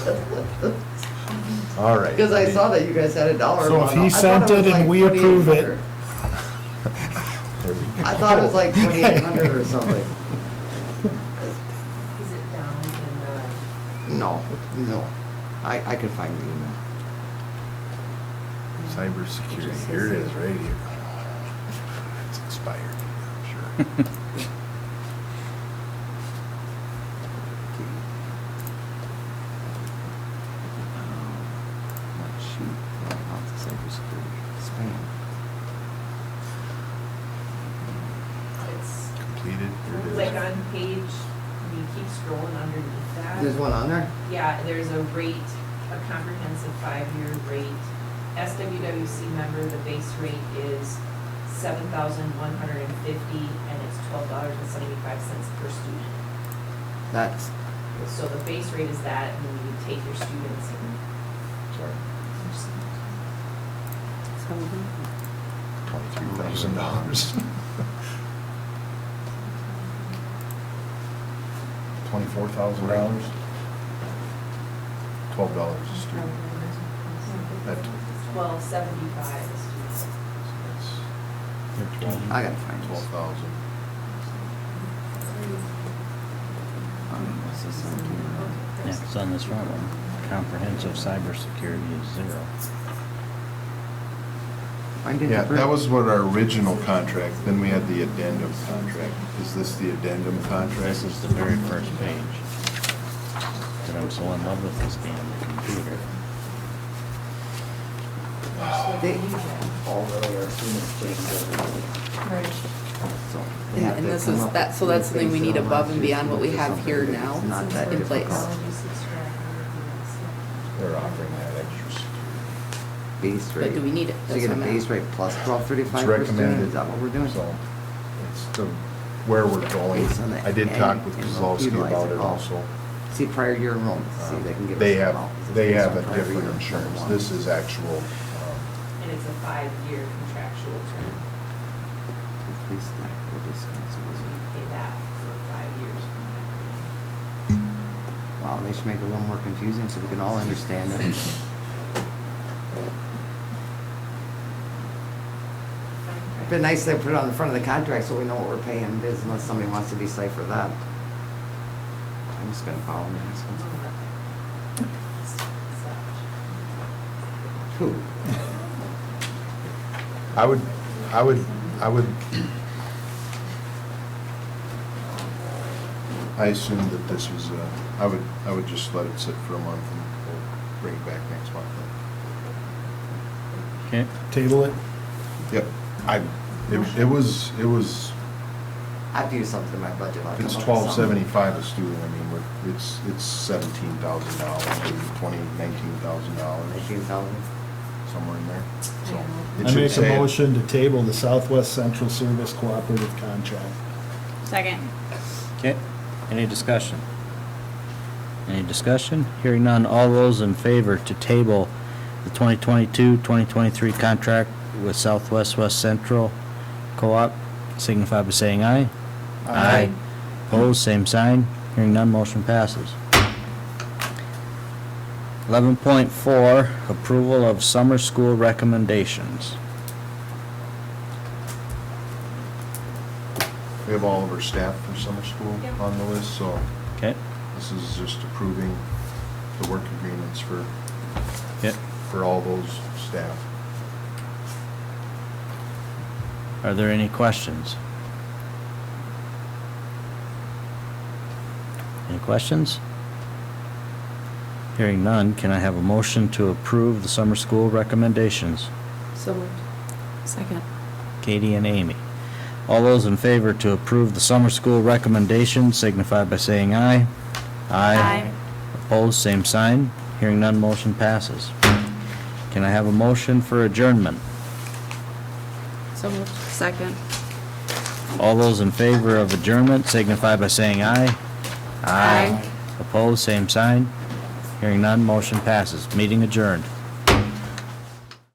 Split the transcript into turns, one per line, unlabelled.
All right.
Because I saw that you guys had a dollar.
So if
amount.
he
I thought
sent
was
it and
like
we approve it-
2,800.
There we go.
I thought it was like twenty-eight hundred or something.
Is it down in the, um,
No, no. I, I could find the email.
Cybersecurity, here it is, right here. It's expired, I'm sure.
Let's shoot, right off the cybersecurity spam.
it's
Completed, here
like
it is.
on page, you keep scrolling underneath that.
There's one on there?
Yeah, there's a rate, a comprehensive five-year rate. SWWC member, the base rate is seven thousand one hundred and fifty, and it's twelve dollars and seventy-five cents per student.
That's,
So the base rate is that, and then you take your students and
Sorry.
just
Twenty-three thousand dollars. Twenty-four thousand dollars? Twelve dollars a student. That-
twelve seventy-five a student.
I gotta find
Twelve
this.
thousand.
um, what's this on here?
Yeah, it's on this front one. Comprehensive cybersecurity is zero.
I didn't
Yeah, that
print.
was what our original contract, then we had the addendum contract. Is this the addendum contract?
This is the very first page. That I'm so in love with this damn computer.
They all really are students putting together. So they
Yeah,
have
and
to
this
come
is-
up with
that- so that's
new
something we
things
need
that
above and
allows you to
beyond what we
do
have
something
here
that's
now
not that
in place.
difficult.
They're offering that extra security.
Base rate.
But do we need it?
So you
That's
get a
what I'm
base
at.
rate plus twelve
It's
thirty-five per student,
recommended.
is that what we're doing?
So it's the, where we're going.
Based on the
I did talk with
end and
Kozlowski
utilize
about
it
it
all.
also. Uh, Um,
See prior year enrollment, see they can give.
They
us
have,
all, 'cause it's
they
based
have
on
a
prior
different
year
insurance.
enrollment.
This is actual, um,
And it's a five-year contractual term.
Please, like, we'll discuss
So
it.
you pay that for five years.
Wow, they should make it a little more confusing so we can all understand it. It'd been nice they put it on the front of the contract so we know what we're paying it is unless somebody wants to decipher that. I'm just gonna follow them. and ask them. Who?
I would, I would, I would. I assumed that this was, uh, I would, I would just let it sit for a month and we'll bring it back next month.
Okay.
Table it.
Yep, I, it- it was, it was,
I've used something in my budget. I'll come
it's
up with
twelve
something.
seventy-five a student, I mean, we're- it's, it's seventeen thousand dollars, twenty, nineteen thousand dollars,
Nineteen thousand.
somewhere in there, so. it
I
should
make a
say it.
motion to table the Southwest Central Service Cooperative Contract.
Second.
Okay. Any discussion? Any discussion? Hearing none. All those in favor to table the 2022-2023 contract with Southwest West Central Co-op signify by saying aye. Aye. Opposed, same sign. Hearing none, motion passes. 11.4, approval of summer school recommendations.
We have all of our staff from summer school
Yep.
on the list, so
Okay?
this is just approving the work agreements for,
Yep.
for all those staff.
Are there any questions? Any questions? Hearing none, can I have a motion to approve the summer school recommendations?
So moved. Second.
Katie and Amy. All those in favor to approve the summer school recommendations signify by saying aye.
Aye.
Opposed, same sign. Hearing none, motion passes. Can I have a motion for adjournment?
So moved. Second.
All those in favor of adjournment signify by saying aye.
Aye.
Opposed, same sign. Hearing none, motion passes. Meeting adjourned.